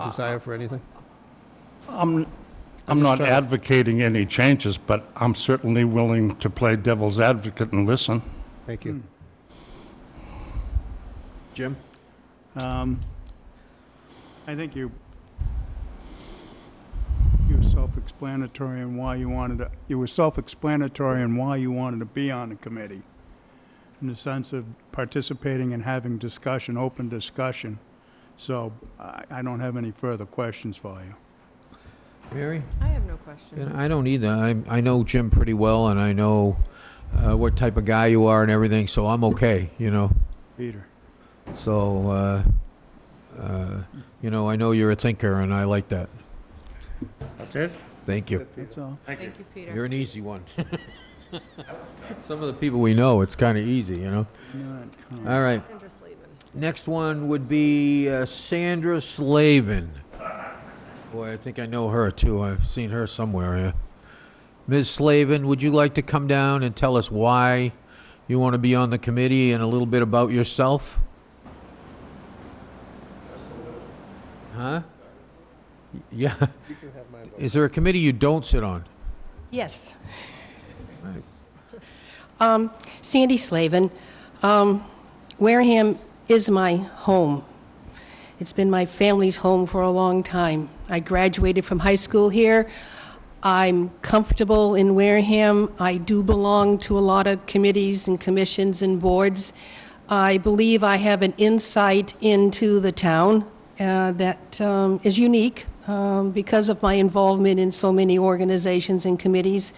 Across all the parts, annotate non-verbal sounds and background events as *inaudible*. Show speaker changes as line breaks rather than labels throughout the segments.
Any desire for anything?
I'm not
trying to-
advocating any changes, but I'm certainly willing to play devil's advocate and listen.
Thank you.
Jim?
Um, I think you, you were self-explanatory in why you wanted to, you were self-explanatory in why you wanted to be on the committee, in the sense of participating and having discussion, open discussion. So I, I don't have any further questions for you.
Mary?
I have no
And
questions.
I don't either. I, I know Jim pretty well, and I know uh, what type of guy you are and everything, so I'm okay, you know?
Peter?
So, uh, uh, you know, I know you're a thinker, and I like that.
That's it?
Thank you.
That's all.
Thank you,
You're
Peter.
an easy one. *laughs* Some of the people we know, it's kind of easy, you know?
Not comment.
All right.
Sandra Slavin.
Next one would be uh, Sandra Slavin. Boy, I think I know her too. I've seen her somewhere. Yeah. Ms. Slavin, would you like to come down and tell us why you want to be on the committee and a little bit about yourself? Huh? *laughs* Yeah. Is there a committee you don't sit on?
Yes.
Right.
Um, Sandy Slavin. Um, Wareham is my home. It's been my family's home for a long time. I graduated from high school here. I'm comfortable in Wareham. I do belong to a lot of committees and commissions and boards. I believe I have an insight into the town uh, that um, is unique um, because of my involvement in so many organizations and committees.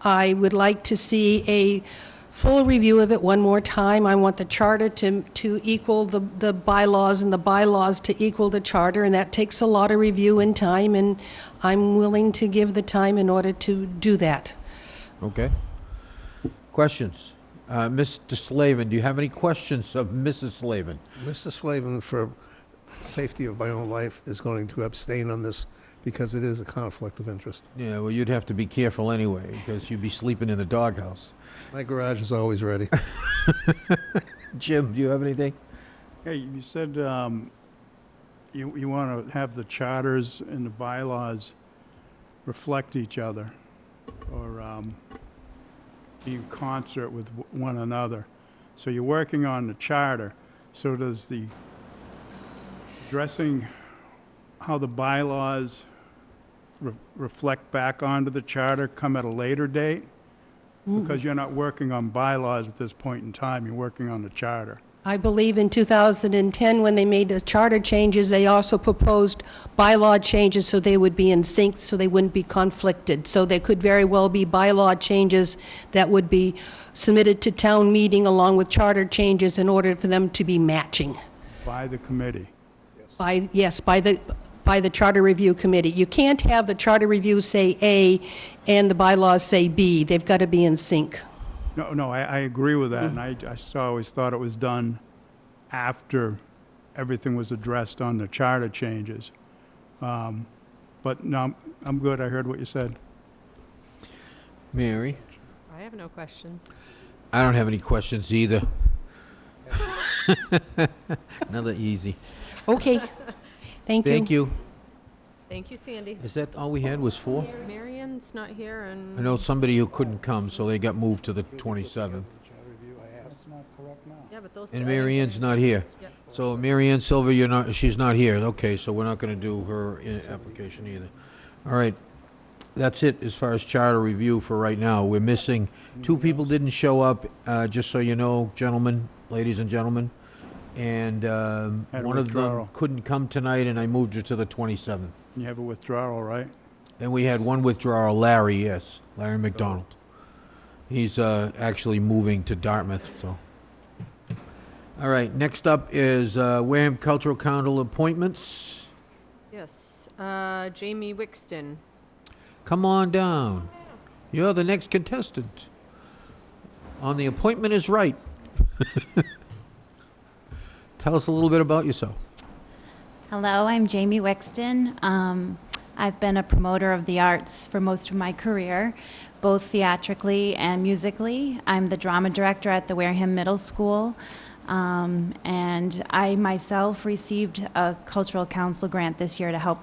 I would like to see a full review of it one more time. I want the charter to, to equal the, the bylaws and the bylaws to equal the charter, and that takes a lot of review and time, and I'm willing to give the time in order to do that.
Okay. Questions? Uh, Mr. Slavin, do you have any questions of Mrs. Slavin?
Mr. Slavin, for safety of my own life, is going to abstain on this because it is a conflict of interest.
Yeah, well, you'd have to be careful anyway, because you'd be sleeping in the doghouse.
My garage is always ready.
Jim, do you have anything?
Hey, you said um, you, you want to have the charters and the bylaws reflect each other or um, be in concert with w- one another. So you're working on the charter, so does the addressing how the bylaws re- reflect back onto the charter come at a later date? Because you're not working on bylaws at this point in time, you're working on the charter.
I believe in 2010, when they made the charter changes, they also proposed bylaw changes so they would be in sync, so they wouldn't be conflicted. So there could very well be bylaw changes that would be submitted to town meeting along with charter changes in order for them to be matching.
By the committee.
By, yes, by the, by the Charter Review Committee. You can't have the Charter Review say A and the bylaws say B. They've got to be in sync.
No, no, I, I agree with that, and I, I s- always thought it was done after everything was addressed on the charter changes. Um, But no, I'm- I'm good, I heard what you said.
Mary?
I have no questions.
I don't have any questions either. *laughs* Another easy.
*laughs* Okay. Thank you.
Thank you.
Thank you, Sandy.
Is that all we had was four?
Marion's not here and.
I know somebody who couldn't come, so they got moved to the 27th.
Yeah, but those. two-
And
I didn't
Mary
get
Ann's
it.
not here.
Yep.
So Mary Ann Silver, you're not, she's not here. Okay, so we're not going to do her in- application either. All right. That's it as far as charter review for right now. We're missing, two people didn't show up, uh, just so you know, gentlemen, ladies and gentlemen. And um,
Had a
one of them
withdrawal.
couldn't come tonight, and I moved her to the 27th.
You have a withdrawal, right?
And we had one withdrawal, Larry, yes, Larry McDonald. He's uh, actually moving to Dartmouth, so. All right, next up is uh, Wareham Cultural Council appointments.
Yes, uh, Jamie Wixton.
Come on down. You're the next contestant. On the appointment is right. *laughs* Tell us a little bit about yourself.
Hello, I'm Jamie Wixton. Um, I've been a promoter of the arts for most of my career, both theatrically and musically. I'm the drama director at the Wareham Middle School. Um, And I myself received a cultural council grant this year to help